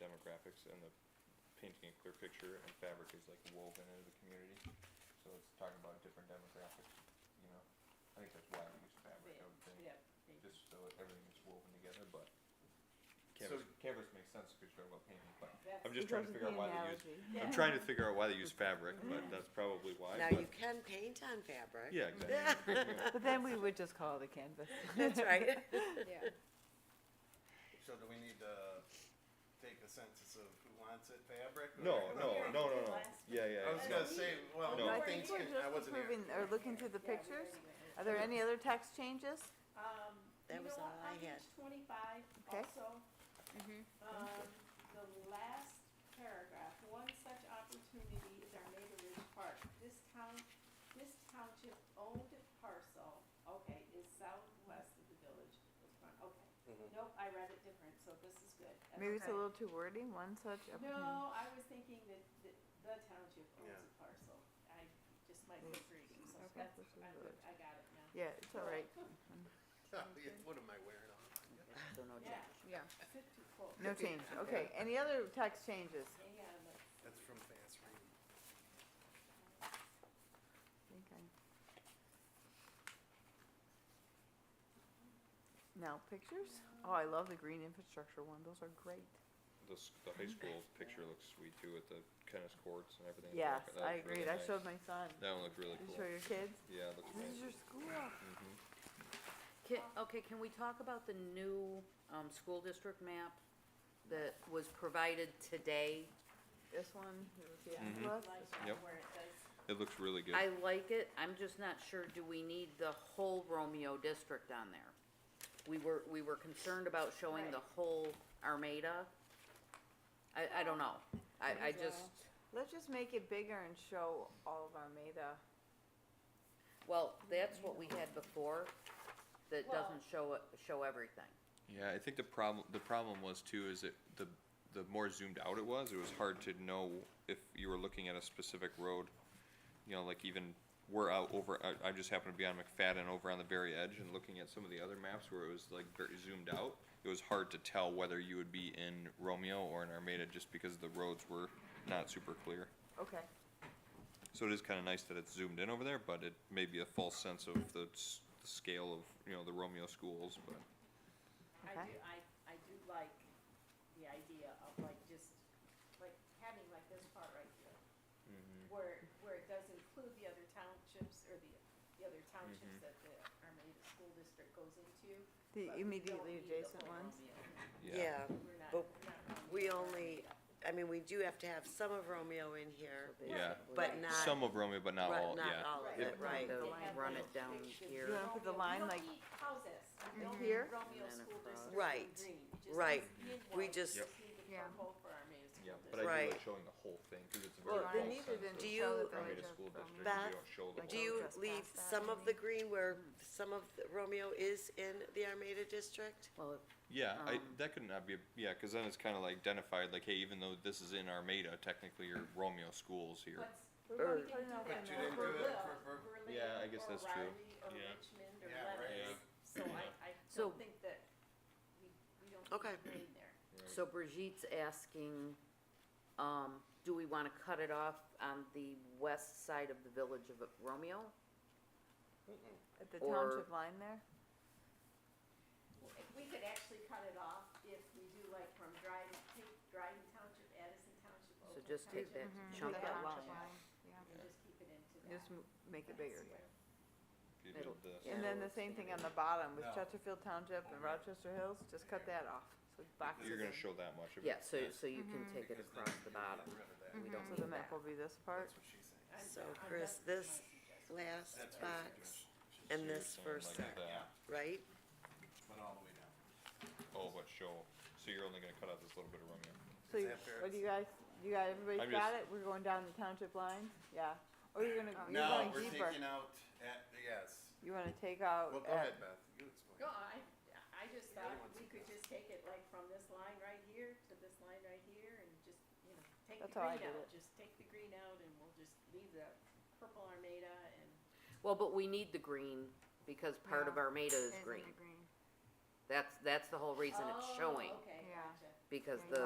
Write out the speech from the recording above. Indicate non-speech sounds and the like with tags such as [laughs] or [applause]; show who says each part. Speaker 1: fabrics and the painting a clear picture and fabric is like woven into the community. So it's talking about different demographics, you know, I think that's why we use fabric, I would think,
Speaker 2: Yeah,
Speaker 1: just so that everything is woven together, but
Speaker 3: So-
Speaker 1: canvas, canvas makes sense because you're talking about painting, but
Speaker 2: that's.
Speaker 1: I'm just trying to figure out why they use,
Speaker 2: Yeah.
Speaker 1: I'm trying to figure out why they use fabric, but that's probably why,
Speaker 4: Now,
Speaker 1: but,
Speaker 4: you can paint on fabric.
Speaker 1: yeah, exactly. [laughs] Yeah.
Speaker 5: But then we would just call it a canvas.
Speaker 4: [laughs] That's right.
Speaker 2: Yeah,
Speaker 3: So do we need to take a census of who wants it fabric? or-
Speaker 1: No, no, no, no, no, yeah, yeah.
Speaker 3: I was
Speaker 1: no.
Speaker 3: gonna say,
Speaker 1: [laughs]
Speaker 3: well,
Speaker 1: No.
Speaker 5: I
Speaker 3: things
Speaker 5: think we're
Speaker 3: can, I
Speaker 5: just
Speaker 3: wasn't here.
Speaker 5: approving or looking through the
Speaker 2: Yeah, we already
Speaker 5: pictures.
Speaker 2: went over
Speaker 5: Are there any other text changes?
Speaker 2: Um, you
Speaker 4: That
Speaker 2: know
Speaker 4: was
Speaker 2: what,
Speaker 4: all I
Speaker 2: on
Speaker 4: had.
Speaker 2: page twenty-five
Speaker 5: Okay. Mm-hmm.
Speaker 2: also, um, the last paragraph, one such opportunity is our neighbor Ridge Park. This town, this township owned parcel, okay, is southwest of the village. It's fine, Okay,
Speaker 3: Mhm.
Speaker 2: nope, I read it different, so this is good. That's
Speaker 5: Maybe it's
Speaker 2: okay.
Speaker 5: a little too wordy, one such. opportunity.
Speaker 2: No, I was thinking that, that the township owns
Speaker 3: Yeah.
Speaker 2: a parcel. I just might
Speaker 5: Mm.
Speaker 2: be reading, so
Speaker 5: Okay.
Speaker 2: that's,
Speaker 5: This is
Speaker 2: I'm good,
Speaker 5: good.
Speaker 2: I got it now.
Speaker 5: Yeah, it's all right.
Speaker 3: [laughs] Yeah, What am I wearing on?
Speaker 4: So no
Speaker 2: Yeah.
Speaker 5: Yeah.
Speaker 2: Sit too close.
Speaker 5: No change, okay. Any other text changes?
Speaker 2: Hang on, let's-
Speaker 3: That's from fast reading.
Speaker 5: think I- Now, pictures? Oh, I love the green infrastructure one, those are great.
Speaker 1: The, s- the high school picture looks sweet too with the tennis courts and everything.
Speaker 5: Yes,
Speaker 1: That
Speaker 5: I
Speaker 1: looks really
Speaker 5: agreed, I
Speaker 1: nice.
Speaker 5: showed my son.
Speaker 1: That one looked really
Speaker 5: Did you
Speaker 1: cool.
Speaker 5: show your kids?
Speaker 1: Yeah, it looks
Speaker 5: This is
Speaker 1: nice.
Speaker 5: your school.
Speaker 1: Mhm.
Speaker 6: Can, okay, can we talk about the new, um, school district map that was provided today?
Speaker 5: This one, it was the
Speaker 1: Mhm.
Speaker 5: atlas.
Speaker 2: like
Speaker 5: This one.
Speaker 1: Yep.
Speaker 2: where it says
Speaker 1: It looks really good.
Speaker 6: I like it, I'm just not sure, do we need the whole Romeo district on there? We were, we were concerned about showing the whole Armada. I, I don't know, I, I just,
Speaker 5: Let's just make it bigger and show all of Armada.
Speaker 6: well, that's what we had before, that
Speaker 2: Well-
Speaker 6: doesn't show, it- show everything.
Speaker 1: Yeah, I think the problem, the problem was too, is that the, the more zoomed out it was, it was hard to know if you were looking at a specific road. You know, like even, we're out over, I, I just happened to be on McFadden over on the very edge and looking at some of the other maps where it was like very zoomed out. It was hard to tell whether you would be in Romeo or in Armada just because the roads were not super clear.
Speaker 5: Okay,
Speaker 1: So it is kinda nice that it's zoomed in over there, but it may be a false sense of the, s- the scale of, you know, the Romeo schools, but.
Speaker 2: I
Speaker 5: Okay.
Speaker 2: do, I, I do like the idea of like just, like having like this part right here,
Speaker 1: Mm-hmm.
Speaker 2: where, where it does include the other townships or the, the other townships
Speaker 1: Mm-hmm.
Speaker 2: that the Armada School District goes into.
Speaker 5: the
Speaker 2: but we don't
Speaker 5: immediately
Speaker 2: need the
Speaker 5: adjacent
Speaker 2: whole
Speaker 5: ones.
Speaker 2: Romeo.
Speaker 4: Yeah,
Speaker 2: We're not,
Speaker 4: But
Speaker 2: we're not.
Speaker 4: we
Speaker 2: Romeo.
Speaker 4: only, I mean, we do have to have some of Romeo in here,
Speaker 1: Yeah.
Speaker 4: but not,
Speaker 1: Some of Romeo, but not
Speaker 4: right-
Speaker 1: all,
Speaker 4: not
Speaker 1: yeah.
Speaker 4: all of
Speaker 2: Right.
Speaker 4: it, right.
Speaker 6: They'll
Speaker 2: They have
Speaker 6: run
Speaker 2: little
Speaker 6: it down
Speaker 2: pictures.
Speaker 6: here.
Speaker 5: You wanna put the
Speaker 2: Romeo- you
Speaker 5: line
Speaker 2: don't
Speaker 5: like- Mhm.
Speaker 2: need houses. You don't need
Speaker 5: Here?
Speaker 2: Romeo
Speaker 6: And then
Speaker 2: School
Speaker 6: across.
Speaker 2: District in
Speaker 4: Right.
Speaker 2: green. It just
Speaker 4: Right.
Speaker 2: needs to be in
Speaker 4: We
Speaker 2: white.
Speaker 4: just-
Speaker 2: You need the
Speaker 5: Yeah.
Speaker 2: purple for Armada School
Speaker 1: Yeah,
Speaker 2: District.
Speaker 1: but I do
Speaker 4: Right.
Speaker 1: like showing the whole thing, cause it's a very
Speaker 5: Well,
Speaker 1: false
Speaker 5: they
Speaker 1: sense
Speaker 5: needed
Speaker 1: of
Speaker 5: to
Speaker 4: Do
Speaker 5: show
Speaker 4: you-
Speaker 5: that they're
Speaker 1: Armada
Speaker 5: just
Speaker 1: School
Speaker 5: from-
Speaker 1: district,
Speaker 4: Beth,
Speaker 1: you don't show the
Speaker 5: Like
Speaker 4: Do
Speaker 1: whole-
Speaker 4: you
Speaker 5: just
Speaker 4: leave
Speaker 5: past that,
Speaker 4: some of the
Speaker 5: maybe?
Speaker 4: green where some of the- Romeo is in the Armada district?
Speaker 6: Well,
Speaker 1: Yeah, I,
Speaker 6: um,
Speaker 1: that could not be, yeah, cause then it's kinda like identified, like, hey, even though this is in Armada, technically your Romeo schools here.
Speaker 2: But But we didn't do
Speaker 5: But
Speaker 2: that
Speaker 3: you didn't
Speaker 2: for
Speaker 3: do it
Speaker 2: Berlin,
Speaker 3: for Ber-
Speaker 2: Berlin
Speaker 1: Yeah, I guess
Speaker 2: or
Speaker 1: that's true.
Speaker 2: Riley Or
Speaker 1: Yeah.
Speaker 2: Richmond or
Speaker 3: Yeah, right.
Speaker 2: Lebanon, so I, I
Speaker 6: So-
Speaker 2: don't think that we, we don't
Speaker 4: Okay.
Speaker 2: need green there.
Speaker 6: So Brigitte's asking, um, do we wanna cut it off on the west side of the village of Romeo?
Speaker 5: At the
Speaker 6: Or-
Speaker 5: township line there?
Speaker 2: Well, if We could actually cut it off if we do like from Dryden, take Dryden Township, Addison Township,
Speaker 6: So
Speaker 2: Oakland
Speaker 6: just take
Speaker 2: Township,
Speaker 6: that chunk
Speaker 5: That
Speaker 6: out.
Speaker 5: township line, yeah.
Speaker 2: And just keep it into that.
Speaker 5: Just m- make it bigger, yeah.
Speaker 1: You
Speaker 6: Middle-
Speaker 1: did this.
Speaker 6: yeah.
Speaker 5: And then the same thing on the bottom with
Speaker 3: No.
Speaker 5: Chesterfield Township and Rochester Hills, just cut that off, so it boxes
Speaker 1: You're gonna
Speaker 5: in.
Speaker 1: show that much of it.
Speaker 6: Yeah, so, so you can take
Speaker 3: Because then
Speaker 6: it across the
Speaker 3: you're getting
Speaker 6: bottom.
Speaker 3: rid of that.
Speaker 6: We don't
Speaker 5: Mm-hmm. So the
Speaker 6: need
Speaker 5: map
Speaker 6: that.
Speaker 5: will be this part,
Speaker 3: That's what she's saying.
Speaker 2: I'm-
Speaker 4: So,
Speaker 2: I'm
Speaker 4: Chris,
Speaker 2: just-
Speaker 4: this
Speaker 2: my suggestion.
Speaker 4: last
Speaker 3: That's her
Speaker 4: box
Speaker 3: suggestion.
Speaker 4: and
Speaker 1: You're
Speaker 4: this
Speaker 1: saying
Speaker 4: first
Speaker 1: like
Speaker 4: set,
Speaker 1: that.
Speaker 4: right?
Speaker 3: But all the way down.
Speaker 1: Oh, but show, so you're only gonna cut out this little bit of Romeo.
Speaker 5: so
Speaker 3: Is
Speaker 5: you-
Speaker 3: that fair?
Speaker 5: what do you guys, you got,
Speaker 1: I'm
Speaker 5: everybody's got
Speaker 1: just-
Speaker 5: it, we're going down the township line, yeah? Or Oh, you're gonna, you're
Speaker 3: No,
Speaker 5: going
Speaker 3: we're
Speaker 5: deeper,
Speaker 3: taking out at, yes.
Speaker 5: you wanna take out
Speaker 3: Well, go
Speaker 5: at
Speaker 3: ahead, Beth. You explain.
Speaker 2: No, I, I just
Speaker 3: The other
Speaker 2: thought
Speaker 3: one's
Speaker 2: we could just take it like from this line right here to this line right here and just, you know, take the
Speaker 5: That's how I
Speaker 2: green
Speaker 5: did
Speaker 2: out,
Speaker 5: it.
Speaker 2: just take the green out and we'll just leave the purple Armada and.
Speaker 6: Well, but we need the green, because part of
Speaker 5: Yeah.
Speaker 6: Armada is green. That's, that's the whole reason it's
Speaker 2: Oh,
Speaker 6: showing,
Speaker 2: Okay,
Speaker 5: Yeah.
Speaker 2: gotcha.
Speaker 6: because
Speaker 5: Yeah, you
Speaker 6: the